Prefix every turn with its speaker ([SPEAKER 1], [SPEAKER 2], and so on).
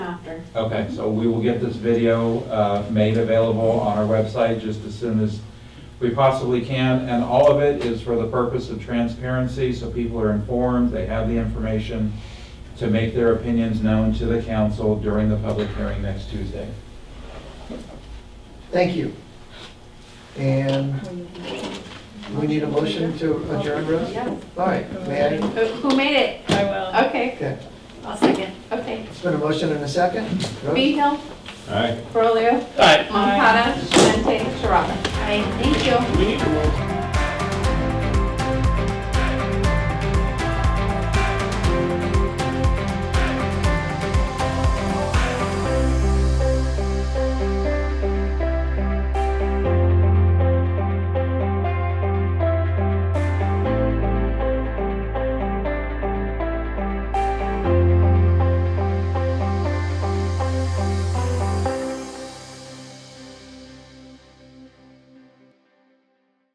[SPEAKER 1] after.
[SPEAKER 2] Okay, so we will get this video uh, made available on our website just as soon as we possibly can. And all of it is for the purpose of transparency, so people are informed, they have the information to make their opinions known to the council during the public hearing next Tuesday.
[SPEAKER 3] Thank you. And we need a motion to adjourn, Rose?
[SPEAKER 1] Yeah.
[SPEAKER 3] All right, may I?
[SPEAKER 1] Who who made it?
[SPEAKER 4] I will.
[SPEAKER 1] Okay,
[SPEAKER 3] Okay,
[SPEAKER 1] I'll second. Okay.
[SPEAKER 3] it's been a motion and a second. Rose?
[SPEAKER 1] B Hill,
[SPEAKER 2] All right.
[SPEAKER 1] Ferolio,
[SPEAKER 5] All right.
[SPEAKER 1] Moncada, Shalante, Sharada. Aye, thank you.
[SPEAKER 5] We need to roll.